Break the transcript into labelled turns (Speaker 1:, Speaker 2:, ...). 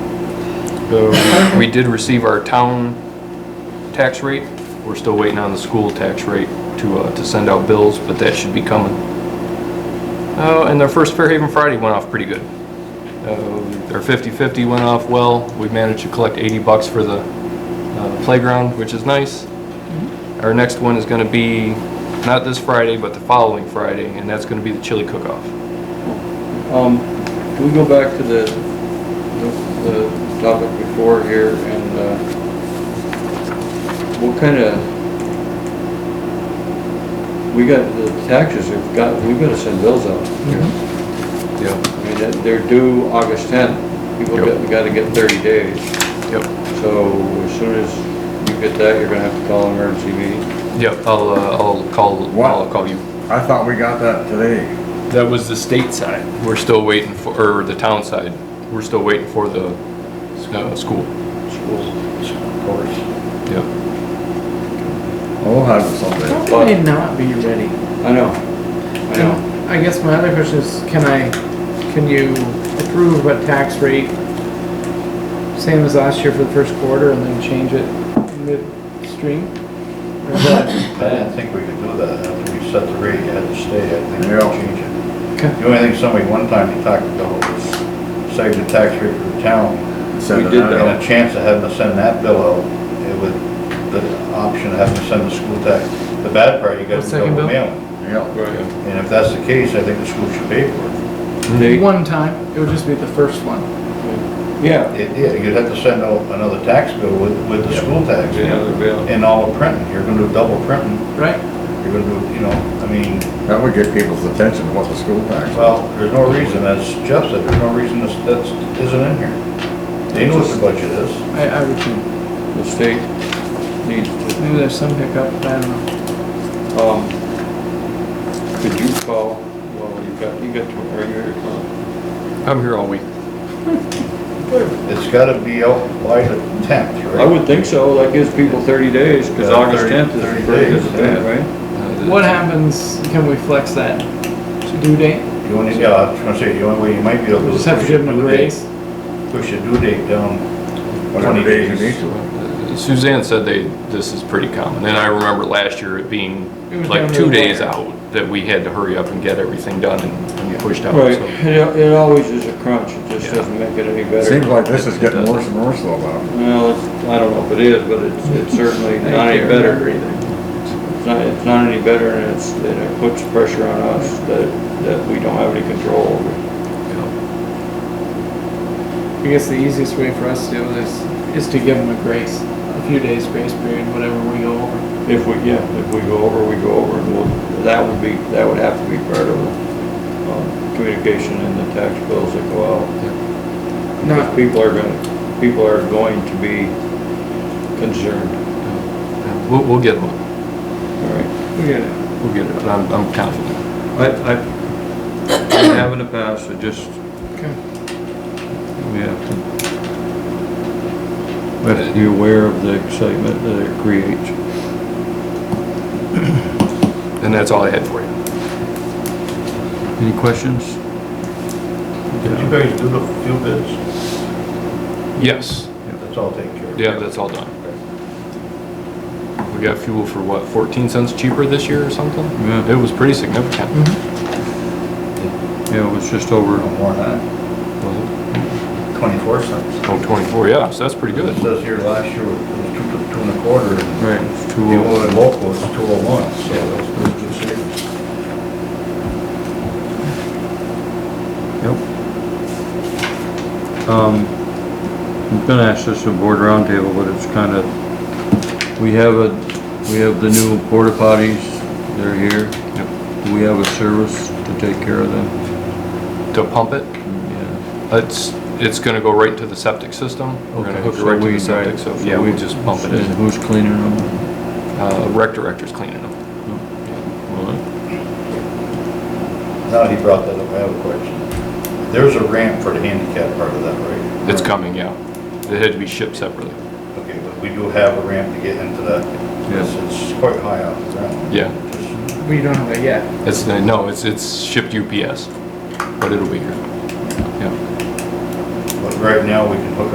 Speaker 1: The- We did receive our town tax rate. We're still waiting on the school tax rate to, uh, to send out bills, but that should be coming. Uh, and their first Fairhaven Friday went off pretty good. Uh, Their 50/50 went off well. We managed to collect 80 bucks for the uh, playground, which is nice. Our next one is gonna be, not this Friday, but the following Friday, and that's gonna be the chili cook-off.
Speaker 2: Um, can we go back to the, the- the topic before here and, uh, what kind of, we got, the taxes have got, we've got to send bills out. here.
Speaker 1: Yeah.
Speaker 2: I mean, they're- they're due August tenth. People
Speaker 1: Yep.
Speaker 2: got, got to get thirty days.
Speaker 1: Yep.
Speaker 2: So as soon as you get that, you're gonna have to call an emergency meeting.
Speaker 1: Yep, I'll, uh, I'll call,
Speaker 3: Wow.
Speaker 1: I'll call you.
Speaker 3: I thought we got that today.
Speaker 4: That was the state side.
Speaker 1: We're still waiting for, or the town side, we're still waiting for the, uh, school.
Speaker 2: Of course.
Speaker 1: Yeah.
Speaker 3: Well, We'll have it someday.
Speaker 5: How can they not be ready?
Speaker 2: I know, I know.
Speaker 5: And I guess my other question is, can I, can you approve a tax rate same as last year for the first quarter and then change it midstream? Or is that-
Speaker 6: I didn't think we could do that after we set the rate, you had to stay, I think we
Speaker 3: Yeah.
Speaker 6: change it.
Speaker 5: Okay.
Speaker 6: The only thing somebody one time they talked about was save the tax rate for the town.
Speaker 3: Send
Speaker 2: We
Speaker 3: it
Speaker 2: did
Speaker 3: out.
Speaker 2: that.
Speaker 6: And a chance of having to send that bill out, it would, the option of having to send the school tax. The bad part, you gotta
Speaker 5: The second bill?
Speaker 6: double mail it.
Speaker 3: Yeah.
Speaker 2: Right.
Speaker 6: And if that's the case, I think the school should pay for it.
Speaker 2: They-
Speaker 5: One time, it would just be the first one.
Speaker 2: Yeah.
Speaker 6: It, yeah, you'd have to send out another tax bill with, with the school tax.
Speaker 2: Another bill.
Speaker 6: And all the printing, you're gonna do double printing,
Speaker 5: Right.
Speaker 6: you're gonna do, you know, I mean,
Speaker 3: That would get people's attention to what the school tax.
Speaker 6: Well, there's no reason, as Jeff said, there's no reason this, that's, isn't in here. They know what the budget is.
Speaker 5: I, I would think,
Speaker 2: The state needs to
Speaker 5: maybe there's some hiccup, I don't know.
Speaker 2: Um, could you call, well, you got, you got to, are you, uh,
Speaker 1: I'm here all week.
Speaker 6: It's gotta be out by the tenth, right?
Speaker 2: I would think so, that gives people thirty days, cause
Speaker 6: Yeah,
Speaker 2: August
Speaker 6: 30
Speaker 2: tenth is
Speaker 6: 30
Speaker 2: the first,
Speaker 6: days,
Speaker 2: day,
Speaker 6: yeah.
Speaker 1: Uh,
Speaker 2: right?
Speaker 5: What happens, can we flex that due date?
Speaker 6: The only, yeah, I was gonna say, the only way you might be able to.
Speaker 5: We just have to
Speaker 6: push
Speaker 5: give
Speaker 6: the
Speaker 5: them a
Speaker 6: due date-
Speaker 5: raise?
Speaker 6: Push the due date down
Speaker 3: Whatever
Speaker 6: twenty
Speaker 3: days you
Speaker 6: days.
Speaker 3: need to.
Speaker 1: Suzanne said they, this is pretty common, and I remember last year it
Speaker 5: It
Speaker 1: being
Speaker 5: was
Speaker 1: like
Speaker 5: down
Speaker 1: two
Speaker 5: to the
Speaker 1: days
Speaker 5: wire.
Speaker 1: out that we had to hurry up and get everything done and and pushed out.
Speaker 2: Right,
Speaker 1: so.
Speaker 2: it, it always is a crunch, it
Speaker 1: Yeah.
Speaker 2: just doesn't make it any
Speaker 3: Seems
Speaker 2: better.
Speaker 3: like this is getting worse and worse though, Bob.
Speaker 2: Well, it's, I don't know if it is, but it's, it's certainly
Speaker 5: I
Speaker 2: not any
Speaker 5: can't remember
Speaker 2: better.
Speaker 5: either.
Speaker 2: It's not, it's not any better and it's, and it puts pressure on us that, that we don't have any control over.
Speaker 5: I guess the easiest way for us to do this is to give them a grace, a few days grace period, whatever we go over.
Speaker 2: If we, yeah, if we go over, we go over, and we'll, that would be, that would have to be part of the, um, communication and the tax bills that go out. Because
Speaker 5: Not,
Speaker 2: people are gonna, people are going to be concerned,
Speaker 1: We'll, we'll get them,
Speaker 2: all right?
Speaker 5: we get it.
Speaker 1: we'll get it, I'm, I'm confident.
Speaker 2: I, I, I have in the past, I just,
Speaker 5: Okay.
Speaker 2: we have to, we have to be aware of the excitement that it creates.
Speaker 1: And that's all I had for you.
Speaker 2: Any questions?
Speaker 6: Did you guys do the few bids?
Speaker 1: Yes,
Speaker 6: That's all taken care of.
Speaker 1: yeah, that's all done. We got fuel for what, 14 cents cheaper this year or something?
Speaker 2: Yeah.
Speaker 1: It was pretty significant.
Speaker 2: Yeah, it was just over.
Speaker 6: No more than
Speaker 2: Mm-hmm.
Speaker 1: Oh,
Speaker 6: that, twenty-four cents.
Speaker 1: 24, Oh, yeah, so that's pretty good.
Speaker 6: It says here last year was two, two and a quarter, and
Speaker 2: Right,
Speaker 6: the
Speaker 2: two oh.
Speaker 6: only local was two oh one, so that's, that's good savings.
Speaker 2: Yep. Um, I'm gonna ask this at board roundtable, but it's kind of, we have a, we have the new porta potties, they're here. Do we have a service to take care of them?
Speaker 1: To pump it,
Speaker 2: Yeah.
Speaker 1: it's, it's gonna go right into the septic system. We're gonna hook it
Speaker 2: So
Speaker 1: right to
Speaker 2: we-
Speaker 1: the septic, so yeah,
Speaker 2: we- Mm-hmm.
Speaker 1: we just pump it
Speaker 2: And
Speaker 1: in.
Speaker 2: who's cleaning them?
Speaker 1: Uh, Rec director's cleaning them.
Speaker 2: Mm-hmm.
Speaker 6: Now he brought that up, I have a question. There's a ramp for the handicap part of that, right?
Speaker 1: It's coming, yeah. It had to be shipped separately.
Speaker 6: Okay, but we do have a ramp to get into that.
Speaker 2: Yes.
Speaker 6: It's quite high off the ground.
Speaker 1: Yeah,
Speaker 5: We don't have that yet.
Speaker 1: it's, no, it's, it's shipped UPS, but it'll be here. Yeah.
Speaker 6: But right now, we can hook